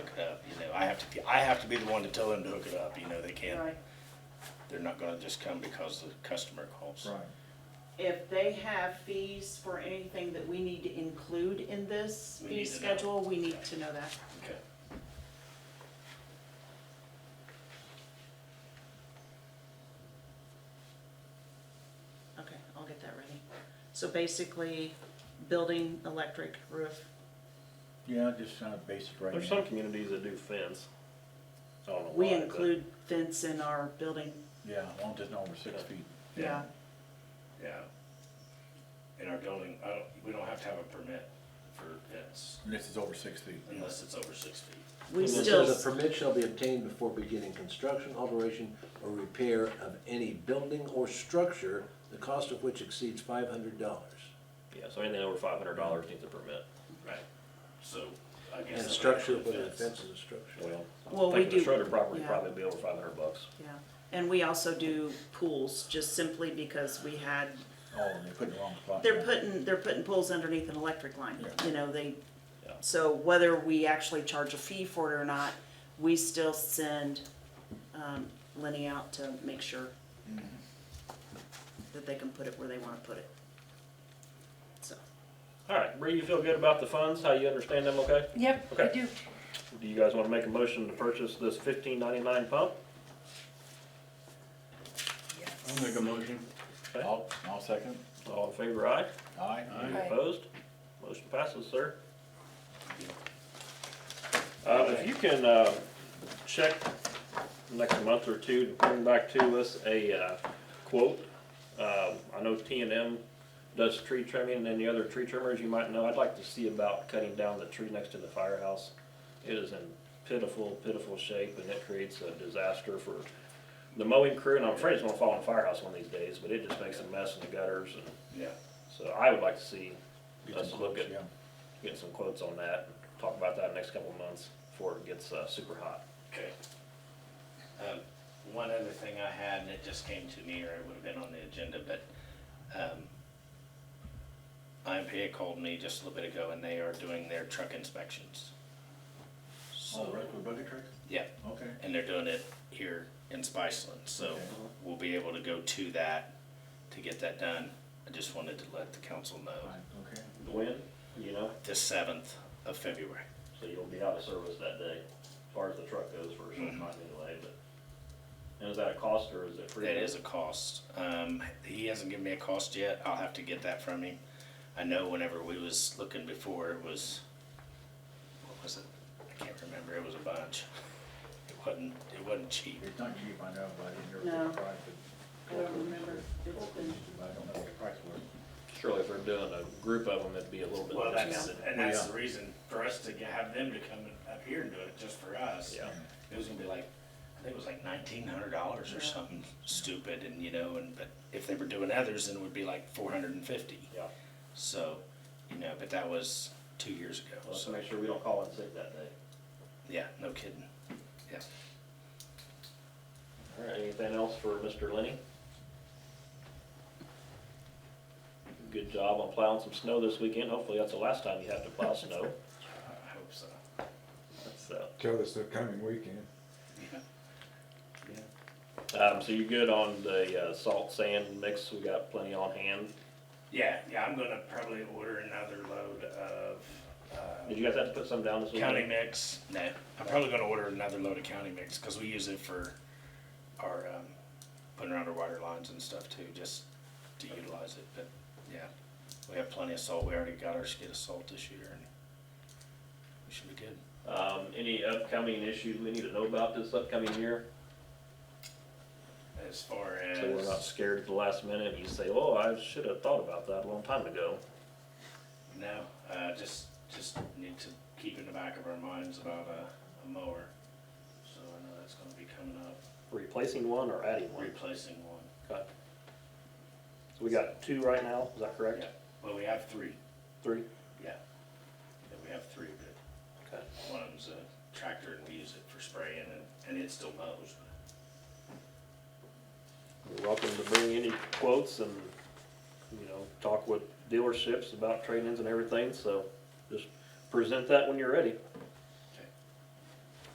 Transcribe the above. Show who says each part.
Speaker 1: I have to, I have to be the one to tell them to hook it up, you know, they can't,
Speaker 2: Right.
Speaker 1: they're not gonna just come because the customer calls.
Speaker 3: Right.
Speaker 2: If they have fees for anything that we need to include in this
Speaker 1: We
Speaker 2: fee
Speaker 1: need to know.
Speaker 2: schedule, we need to know that.
Speaker 1: Okay.
Speaker 2: Okay, I'll get that ready. So basically, building, electric, roof,
Speaker 3: Yeah, just kind of basic right
Speaker 4: There's
Speaker 3: now.
Speaker 4: some communities that do fence. I don't know
Speaker 2: we
Speaker 4: why, but-
Speaker 2: include fence in our building,
Speaker 3: Yeah, as long as it's not over six feet.
Speaker 2: yeah.
Speaker 1: Yeah. In our building, I don't, we don't have to have a permit for pets
Speaker 3: And this is over six feet.
Speaker 1: unless it's over six feet.
Speaker 2: We
Speaker 5: And it
Speaker 2: still,
Speaker 5: says, "A permit shall be obtained before beginning construction, alteration, or repair of any building or structure, the cost of which exceeds five hundred dollars.
Speaker 4: Yeah, so anything over five hundred dollars needs a permit.
Speaker 1: Right. So I guess.
Speaker 5: And
Speaker 1: that would
Speaker 5: structure,
Speaker 1: include
Speaker 5: whether the
Speaker 1: fence.
Speaker 5: fence is a structure.
Speaker 4: Well,
Speaker 2: Well,
Speaker 4: I think
Speaker 2: we
Speaker 4: the
Speaker 2: do-
Speaker 4: Schroeder property
Speaker 2: yeah.
Speaker 4: probably be over five hundred bucks.
Speaker 2: yeah, and we also do pools, just simply because we had,
Speaker 3: Oh, and they put it in the wrong spot.
Speaker 2: they're putting, they're putting pools underneath an electric line,
Speaker 3: Yeah.
Speaker 2: you know, they,
Speaker 4: Yeah.
Speaker 2: so whether we actually charge a fee for it or not, we still send, um, Lenny out to make sure
Speaker 3: Mm-hmm.
Speaker 2: that they can put it where they wanna put it. So,
Speaker 4: All right, Bree, you feel good about the funds? How you understand them? Okay.
Speaker 6: Yep, I
Speaker 4: Okay.
Speaker 6: do.
Speaker 4: Do you guys want to make a motion to purchase this fifteen ninety-nine pump?
Speaker 3: I'll make a motion. I'll, I'll second.
Speaker 4: All in favor, aye?
Speaker 3: Aye.
Speaker 4: Any
Speaker 6: Aye.
Speaker 4: Opposed? Motion passes, sir. Um, if you can, uh, check next month or two, to bring back to us a, uh, quote. Um, I know T and M does tree trimming and any other tree trimmers you might know. I'd like to see about cutting down the tree next to the firehouse. It is in pitiful, pitiful shape and it creates a disaster for the mowing crew. And I'm afraid it's gonna fall on the firehouse one of these days, but it just makes a mess in the gutters and
Speaker 1: Yeah.
Speaker 4: so I would like to see
Speaker 3: Get
Speaker 4: us
Speaker 3: some
Speaker 4: look
Speaker 3: quotes,
Speaker 4: at,
Speaker 3: yeah.
Speaker 4: get some quotes on that, and talk about that next couple of months before it gets, uh, super hot.
Speaker 1: Okay. Um, One other thing I had, and it just came to me, or it would have been on the agenda, but um, IMPA called me just a little bit ago, and they are doing their truck inspections.
Speaker 3: Oh,
Speaker 1: So,
Speaker 3: right, with bucket truck?
Speaker 1: yeah,
Speaker 3: Okay.
Speaker 1: and they're doing it here in Spiceland, so
Speaker 3: Okay.
Speaker 1: we'll be able to go to that to get that done. I just wanted to let the council know,
Speaker 3: Right, okay.
Speaker 4: When, you know,
Speaker 1: the seventh of February.
Speaker 4: so you'll be out of service that day, as far as the truck goes for
Speaker 3: Mm-hmm.
Speaker 4: some time anyway, but. And is that a cost or is it free?
Speaker 1: That is a cost. Um, he hasn't given me a cost yet. I'll have to get that from him. I know whenever we was looking before, it was, what was it? I can't remember. It was a bunch. It wasn't, it wasn't cheap.
Speaker 3: It's not cheap, I know, but I didn't hear
Speaker 2: No.
Speaker 3: what the price
Speaker 2: I
Speaker 3: was.
Speaker 2: don't remember. It's been-
Speaker 3: But I don't know what the price was.
Speaker 4: Surely if we're doing a group of them, it'd be a little bit.
Speaker 1: Well, that's,
Speaker 4: discounted.
Speaker 1: and that's the reason for us to have them to come up here and do it just for us.
Speaker 4: Yeah.
Speaker 1: It was gonna be like, I think it was like nineteen hundred dollars or
Speaker 2: Yeah.
Speaker 1: something stupid and, you know, and, but if they were doing others, then it would be like four hundred and fifty.
Speaker 4: Yeah,
Speaker 1: So, you know, but that was two years ago,
Speaker 4: Well, let's
Speaker 1: so,
Speaker 4: make sure we don't call in sick that day.
Speaker 1: yeah, no kidding, yeah.
Speaker 4: All right, anything else for Mr. Lenny? Good job on plowing some snow this weekend. Hopefully that's the last time you have to plow snow.
Speaker 1: I hope so.
Speaker 4: That's, uh,
Speaker 7: Tell us the coming weekend.
Speaker 4: Um, so you're good on the uh, salt sand mix? We got plenty on hand.
Speaker 1: Yeah, yeah, I'm gonna probably order another load of, uh,
Speaker 4: Did you guys have to put some down this weekend?
Speaker 1: county mix, no, I'm probably gonna order another load of county mix, cause we use it for our, um, putting around our water lines and stuff too, just to utilize it, but, yeah. We have plenty of salt, we already got our skid of salt this year, and we should be good.
Speaker 4: Um, any upcoming issues we need to know about this upcoming year?
Speaker 1: As far as.
Speaker 4: So we're not scared at the last minute. You say, "Oh, I should have thought about that a long time ago."
Speaker 1: No, uh, just, just need to keep in the back of our minds about a, a mower. So I know that's gonna be coming up,
Speaker 4: Replacing one or adding one?
Speaker 1: replacing one.
Speaker 4: Okay. So we got two right now. Is that correct?
Speaker 1: Yeah, well, we have three,
Speaker 4: Three.
Speaker 1: yeah. Yeah, we have three, but
Speaker 4: Okay.
Speaker 1: one of them's a tractor and we use it for spraying and, and it still mows.
Speaker 4: You're welcome to bring any quotes and, you know, talk with dealerships about trade-ins and everything, so just present that when you're ready.